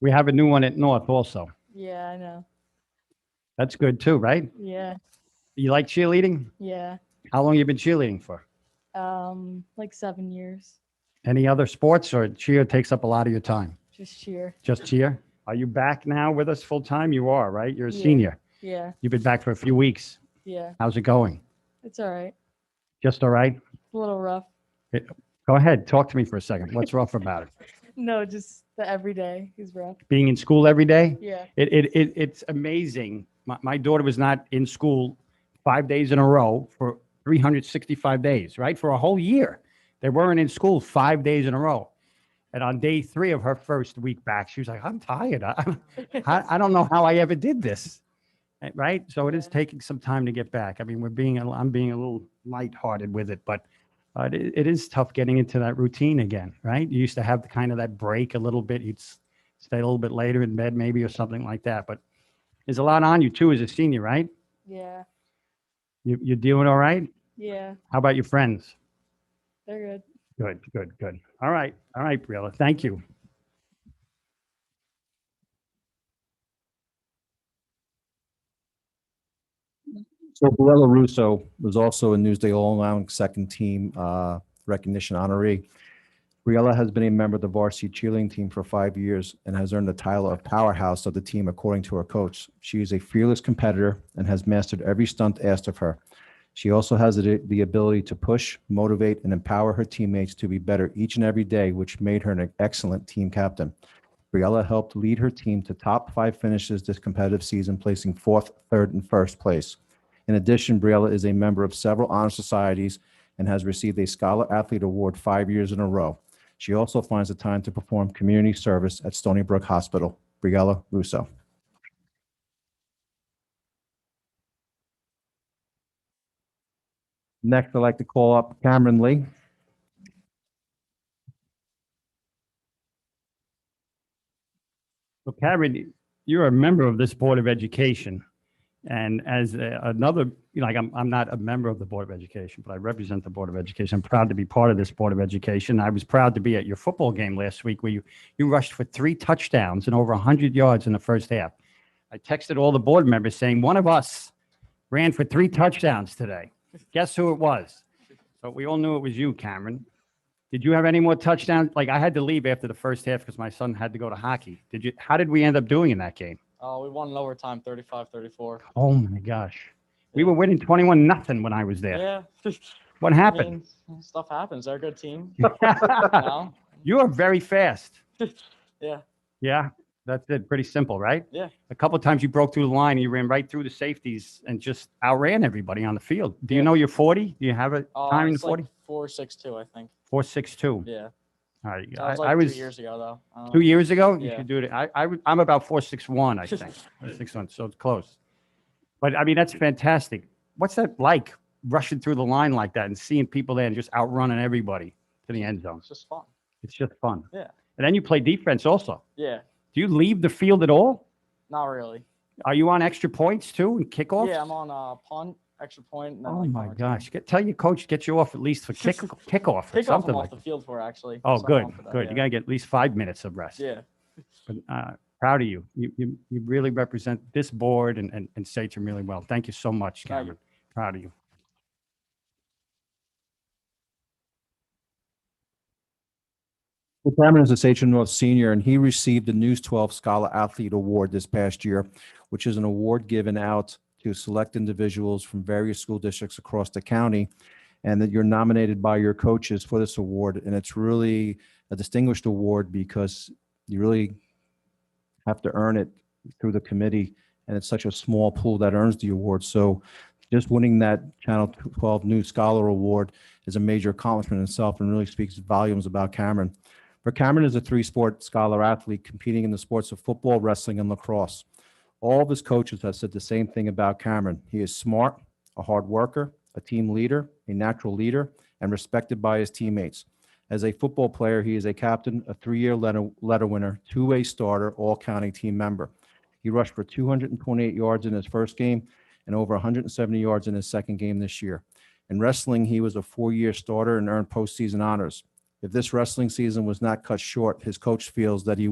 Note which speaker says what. Speaker 1: We have a new one at North also.
Speaker 2: Yeah, I know.
Speaker 1: That's good too, right?
Speaker 2: Yeah,
Speaker 1: You like cheerleading?
Speaker 2: yeah.
Speaker 1: How long you been cheerleading for?
Speaker 2: Um, like seven years.
Speaker 1: Any other sports or cheer takes up a lot of your time?
Speaker 2: Just cheer.
Speaker 1: Just cheer? Are you back now with us full time? You are, right? You're a
Speaker 2: Yeah.
Speaker 1: senior.
Speaker 2: Yeah,
Speaker 1: You've been back for a few weeks.
Speaker 2: yeah.
Speaker 1: How's it going?
Speaker 2: It's all right.
Speaker 1: Just all right?
Speaker 2: It's a little rough.
Speaker 1: Go ahead. Talk to me for a second. What's rough about it?
Speaker 2: No, just the everyday is rough.
Speaker 1: Being in school every day?
Speaker 2: Yeah,
Speaker 1: It, it, it, it's amazing. My, my daughter was not in school five days in a row for 365 days, right? For a whole year. They weren't in school five days in a row. And on day three of her first week back, she was like, I'm tired. I, I, I don't know how I ever did this. Eh, Right? So it is
Speaker 2: Yeah.
Speaker 1: taking some time to get back. I mean, we're being, a- I'm being a little lighthearted with it, but uh, it, it is tough getting into that routine again, right? You used to have kind of that break a little bit. You'd s- stay a little bit later in bed maybe or something like that. But there's a lot on you too as a senior, right?
Speaker 2: yeah,
Speaker 1: You, you're doing all right?
Speaker 2: yeah.
Speaker 1: How about your friends?
Speaker 2: They're good.
Speaker 1: Good, good, good. All right, all right, Briella, thank you.
Speaker 3: So Barella Russo was also a Newsday All-Around Second Team uh, Recognition honoree. Briella has been a member of the varsity cheerleading team for five years and has earned the title of powerhouse of the team according to her coach. She is a fearless competitor and has mastered every stunt asked of her. She also has the the ability to push, motivate, and empower her teammates to be better each and every day, which made her an excellent team captain. Briella helped lead her team to top five finishes this competitive season, placing fourth, third, and first place. In addition, Briella is a member of several honor societies and has received a Scholar Athlete Award five years in a row. She also finds the time to perform community service at Stony Brook Hospital. Briella Russo. Next, I'd like to call up Cameron Lee.
Speaker 1: So Karen, you're a member of this Board of Education. And as a- another, you know, like I'm, I'm not a member of the Board of Education, but I represent the Board of Education. I'm proud to be part of this Board of Education. I was proud to be at your football game last week where you, you rushed for three touchdowns and over 100 yards in the first half. I texted all the board members saying, one of us ran for three touchdowns today. Guess who it was? So we all knew it was you, Cameron. Did you have any more touchdowns? Like I had to leave after the first half because my son had to go to hockey. Did you? How did we end up doing in that game?
Speaker 4: Uh, we won in overtime, 35 34.
Speaker 1: Oh my gosh, we were winning twenty-one nothing when I was there.
Speaker 4: Yeah.
Speaker 1: What
Speaker 4: I
Speaker 1: happened?
Speaker 4: mean, stuff happens. They're a good team. you know?
Speaker 1: you are very fast.
Speaker 4: Yeah.
Speaker 1: Yeah, that's it. Pretty simple, right?
Speaker 4: Yeah.
Speaker 1: A couple of times you broke through the line, and you ran right through the safeties and just outran everybody on the field. Do you know you're forty? Do you have a
Speaker 4: Uh,
Speaker 1: time in
Speaker 4: it's like
Speaker 1: forty?
Speaker 4: 462, I think.
Speaker 1: Four six two.
Speaker 4: Yeah.
Speaker 1: All right,
Speaker 4: That
Speaker 1: I
Speaker 4: was like
Speaker 1: I
Speaker 4: two
Speaker 1: was
Speaker 4: years ago, though. Um, I don't
Speaker 1: two
Speaker 4: know.
Speaker 1: years ago. You
Speaker 4: Yeah.
Speaker 1: should do it. I, I w- I'm about four six one, I think. six months, so it's close. But I mean, that's fantastic. What's that like, rushing through the line like that and seeing people there and just outrunning everybody to the end zone?
Speaker 4: It's just fun.
Speaker 1: It's just fun.
Speaker 4: Yeah.
Speaker 1: And then you play defense also.
Speaker 4: Yeah.
Speaker 1: Do you leave the field at all?
Speaker 4: Not really.
Speaker 1: Are you on extra points too and kickoffs?
Speaker 4: Yeah, I'm on uh, punt, extra point, And then,
Speaker 1: Oh
Speaker 4: like,
Speaker 1: my
Speaker 4: cover two.
Speaker 1: gosh! Get, tell your coach to get you off at least for kick kickoff or
Speaker 4: Pick off
Speaker 1: something
Speaker 4: them off
Speaker 1: like.
Speaker 4: the
Speaker 1: That.
Speaker 4: field for, actually.
Speaker 1: Oh,
Speaker 4: so I'm
Speaker 1: good,
Speaker 4: off for that,
Speaker 1: good. You
Speaker 4: Yeah.
Speaker 1: gotta get at least five minutes of rest.
Speaker 4: yeah.
Speaker 1: But uh, proud of you. You you you really represent this board and and, and Satcham really well. Thank you so much,
Speaker 4: No, you-
Speaker 1: Cameron. Proud of you.
Speaker 3: Well, Cameron is a Sachem North senior, and he received the News 12 Scholar Athlete Award this past year, which is an award given out to select individuals from various school districts across the county, and that you're nominated by your coaches for this award. And it's really a distinguished award because you really have to earn it through the committee, and it's such a small pool that earns the award. So just winning that Channel 12 News Scholar Award is a major accomplishment in itself and really speaks volumes about Cameron. For Cameron is a three-sport scholar athlete competing in the sports of football, wrestling, and lacrosse. All of his coaches have said the same thing about Cameron. He is smart, a hard worker, a team leader, a natural leader, and respected by his teammates. As a football player, he is a captain, a three-year letter, letter winner, two-way starter, all-county team member. He rushed for 228 yards in his first game and over 170 yards in his second game this year. In wrestling, he was a four-year starter and earned postseason honors. If this wrestling season was not cut short, his coach feels that he